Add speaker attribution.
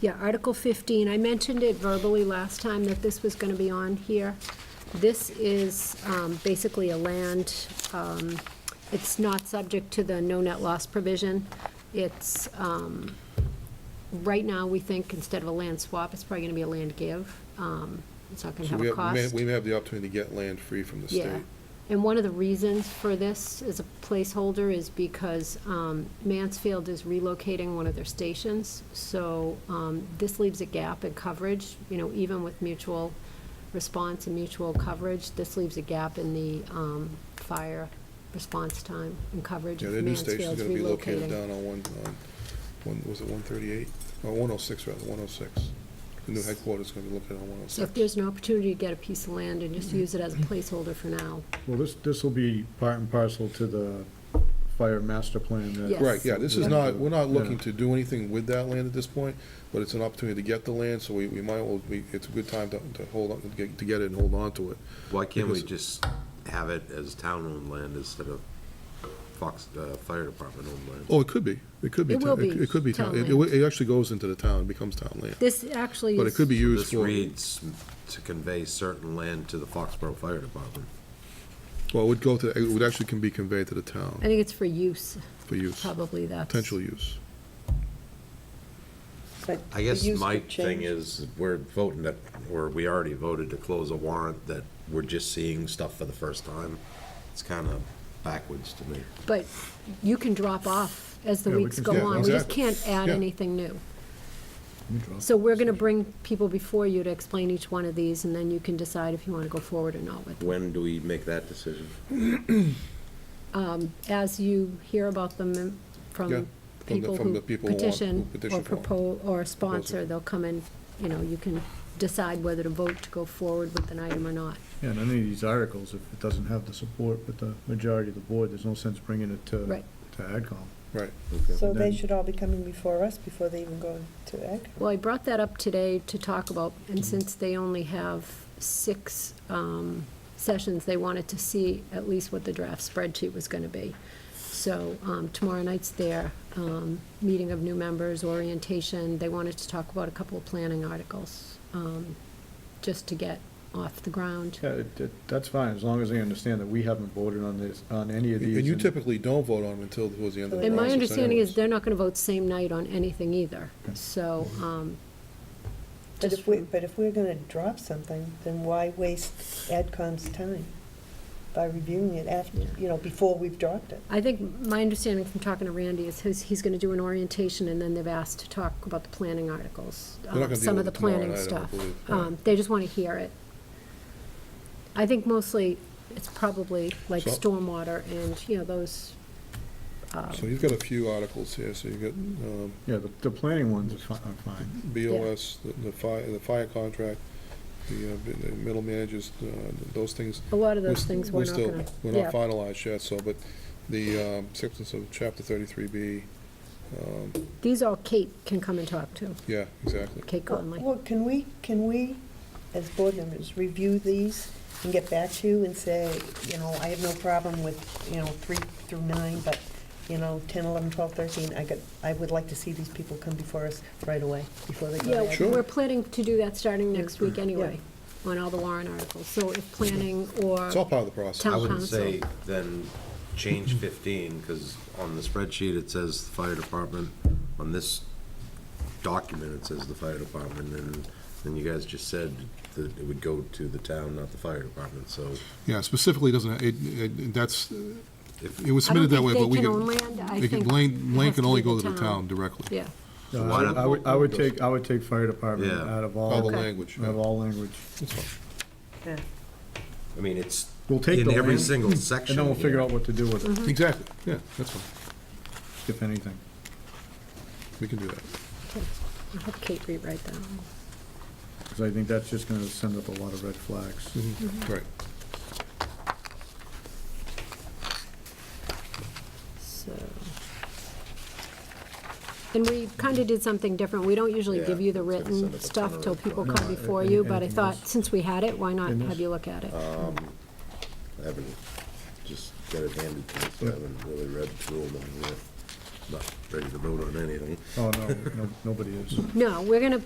Speaker 1: Yeah, Article 15, I mentioned it verbally last time that this was going to be on here. This is um, basically a land, um, it's not subject to the no net loss provision. It's, um, right now, we think instead of a land swap, it's probably going to be a land give. Um, It's not going to
Speaker 2: So
Speaker 1: have
Speaker 2: we
Speaker 1: a
Speaker 2: have- we may-
Speaker 1: cost.
Speaker 2: We may have the opportunity to get land free from the
Speaker 1: Yeah,
Speaker 2: state.
Speaker 1: and one of the reasons for this as a placeholder is because um, Mansfield is relocating one of their stations, so um, this leaves a gap in coverage, you know, even with mutual response and mutual coverage, this leaves a gap in the um, fire response time and coverage
Speaker 2: Yeah,
Speaker 1: if
Speaker 2: their new station's
Speaker 1: Mansfield's
Speaker 2: gonna be
Speaker 1: relocating.
Speaker 2: located down on one, on, one, was it one thirty-eight? Oh, one oh six, rather, one oh six. The new headquarters is gonna be located on one oh
Speaker 1: So if
Speaker 2: six.
Speaker 1: there's an opportunity to get a piece of land and just use it as a placeholder for now,
Speaker 3: Well, this, this will be part and parcel to the fire master plan
Speaker 1: Yes.
Speaker 3: that.
Speaker 2: Right, yeah, this is
Speaker 3: Yeah.
Speaker 2: not, we're not looking
Speaker 3: Yeah.
Speaker 2: to do anything with that land at this point, but it's an opportunity to get the land, so we, we might, well, we, it's a good time to, to hold on, to get, to get it and hold on to it.
Speaker 4: Why can't we
Speaker 2: Because-
Speaker 4: just have it as town-owned land instead of Fox, uh, Fire Department-owned land?
Speaker 2: Oh, it could be, it could be.
Speaker 1: It
Speaker 2: town-
Speaker 1: will be
Speaker 2: It could be, town-
Speaker 1: town
Speaker 2: it,
Speaker 1: land.
Speaker 2: it actually goes into the town, becomes town land,
Speaker 1: this actually is.
Speaker 2: but it could be used
Speaker 4: This
Speaker 2: for,
Speaker 4: reads to convey certain land to the Foxborough Fire Department.
Speaker 2: well, it would go to, it would actually can be conveyed to the town
Speaker 1: I think it's for use,
Speaker 2: for use,
Speaker 1: probably that's.
Speaker 2: potential use.
Speaker 5: But
Speaker 4: I guess
Speaker 5: the use
Speaker 4: my
Speaker 5: could change.
Speaker 4: thing is, we're voting that, or we already voted to close a warrant that we're just seeing stuff for the first time. It's kind of backwards to me.
Speaker 1: But you can drop off as the
Speaker 3: Yeah, we
Speaker 1: weeks
Speaker 3: can-
Speaker 1: go
Speaker 2: yeah,
Speaker 1: on. We just
Speaker 2: exactly.
Speaker 1: can't add
Speaker 2: Yeah.
Speaker 1: anything new. So we're going to bring people before you to explain each one of these, and then you can decide if you want to go forward or not with them.
Speaker 4: When do we make that decision?
Speaker 1: Um, As you hear about them in-
Speaker 2: Yeah,
Speaker 1: from
Speaker 2: from the-
Speaker 1: people
Speaker 2: from
Speaker 1: who
Speaker 2: the people who want-
Speaker 1: petition
Speaker 2: who
Speaker 1: or
Speaker 2: petition for it.
Speaker 1: propose, or
Speaker 2: Propose
Speaker 1: sponsor,
Speaker 2: it.
Speaker 1: they'll come in, you know, you can decide whether to vote to go forward with an item or not.
Speaker 3: Yeah, and any of these articles, if it doesn't have the support with the majority of the board, there's no sense bringing it to,
Speaker 1: Right.
Speaker 3: to AdCom.
Speaker 2: Right.
Speaker 5: So they
Speaker 3: Then-
Speaker 5: should all be coming before us before they even go to ag.
Speaker 1: Well, I brought that up today to talk about, and since they only have six um, sessions, they wanted to see at least what the draft spreadsheet was going to be. So um, tomorrow night's their um, meeting of new members, orientation. They wanted to talk about a couple of planning articles, um, just to get off the ground.
Speaker 3: Yeah, it- it- that's fine, as long as they understand that we haven't voted on this, on any of these.
Speaker 2: And you typically don't vote on them until towards the end of the process.
Speaker 1: And my understanding is
Speaker 2: anyways.
Speaker 1: they're not going to vote same night on anything either, so. um,
Speaker 5: But
Speaker 1: just
Speaker 5: if we,
Speaker 1: from-
Speaker 5: but if we're gonna drop something, then why waste AdCom's time by reviewing it after,
Speaker 1: Yeah.
Speaker 5: you know, before we've dropped it?
Speaker 1: I think my understanding from talking to Randy is he's, he's gonna do an orientation and then they've asked to talk about the planning articles.
Speaker 2: They're not gonna
Speaker 1: um,
Speaker 2: deal
Speaker 1: Some of
Speaker 2: with
Speaker 1: the
Speaker 2: it tomorrow
Speaker 1: planning
Speaker 2: night, I don't
Speaker 1: stuff.
Speaker 2: believe, yeah.
Speaker 1: Um, they just wanna hear it. I think mostly it's probably like
Speaker 2: So-
Speaker 1: stormwater and, you know, those,
Speaker 2: So you've got a few articles here, so you've got um,
Speaker 3: Yeah, the, the planning ones are fine, are fine.
Speaker 2: BOS, the- the fire, the fire contract, the uh, the middle managers, uh, those things.
Speaker 1: a lot of
Speaker 2: we're
Speaker 1: those
Speaker 2: st-
Speaker 1: things we're not
Speaker 2: still-
Speaker 1: gonna,
Speaker 2: We're not
Speaker 1: yeah.
Speaker 2: finalized yet, so, but the um, acceptance of chapter thirty-three B, um,
Speaker 1: These all Kate can come and talk to,
Speaker 2: yeah, exactly.
Speaker 1: Kate Conley.
Speaker 5: Well, can we, can we, as board members, review these and get back to you and say, you know, I have no problem with, you know, three through nine, but, you know, ten, eleven, twelve, thirteen, I got, I would like to see these people come before us right away, before they go to
Speaker 1: Yeah,
Speaker 5: ag.
Speaker 2: Sure.
Speaker 1: we're planning to do that starting next week
Speaker 5: Yeah.
Speaker 1: anyway, on all the Warren articles, so if planning or.
Speaker 2: It's all part of the process.
Speaker 1: Town
Speaker 4: I wouldn't
Speaker 1: council. Mm-hmm.
Speaker 4: say then change fifteen, because on the spreadsheet, it says the fire department. On this document, it says the fire department, and then you guys just said that it would go to the town, not the fire department, so.
Speaker 2: Yeah, specifically doesn't, it- it, that's,
Speaker 4: if-
Speaker 2: it was
Speaker 1: I don't
Speaker 2: submitted that way, but
Speaker 1: think
Speaker 2: we
Speaker 1: they can
Speaker 2: can,
Speaker 1: own land, I
Speaker 2: they can,
Speaker 1: think
Speaker 2: Lane, Lane
Speaker 1: has
Speaker 2: can
Speaker 1: to
Speaker 2: only
Speaker 1: be
Speaker 2: go to the town directly.
Speaker 1: Yeah,
Speaker 3: Uh,
Speaker 4: Why not
Speaker 3: I would, I would
Speaker 2: both?
Speaker 3: take, I would take fire department
Speaker 4: Yeah.
Speaker 3: out of all.
Speaker 2: All the
Speaker 1: Okay.
Speaker 2: language.
Speaker 3: Out of all language.
Speaker 2: That's fine.
Speaker 5: Yeah.
Speaker 4: I mean, it's
Speaker 3: We'll take
Speaker 4: in
Speaker 3: the
Speaker 4: every
Speaker 3: land,
Speaker 4: single section.
Speaker 3: And then we'll
Speaker 4: here.
Speaker 3: figure out what to do with it,
Speaker 2: Exactly, yeah, that's fine,
Speaker 1: Mm-hmm.
Speaker 3: if anything.
Speaker 2: we can do that.
Speaker 1: I hope Kate rewrite that.
Speaker 3: Because I think that's just going to send up a lot of red flags.
Speaker 2: Right.
Speaker 1: So. And we kind of did something different. We don't usually give
Speaker 4: Yeah,
Speaker 1: you the
Speaker 4: it's gonna send
Speaker 1: written
Speaker 4: us a
Speaker 1: stuff
Speaker 4: ton
Speaker 1: till
Speaker 4: of-
Speaker 1: people
Speaker 3: No,
Speaker 1: come
Speaker 3: I-
Speaker 1: before
Speaker 3: I-
Speaker 1: you, but I
Speaker 3: anything
Speaker 1: thought,
Speaker 3: else?
Speaker 1: since we had it, why not
Speaker 3: In
Speaker 1: have
Speaker 3: this?
Speaker 1: you look at it?
Speaker 4: I haven't, just got it handed to me, so I haven't really read through them all yet.
Speaker 6: not ready to vote on anything.
Speaker 4: Oh, no, no, nobody is.
Speaker 3: No, we're going to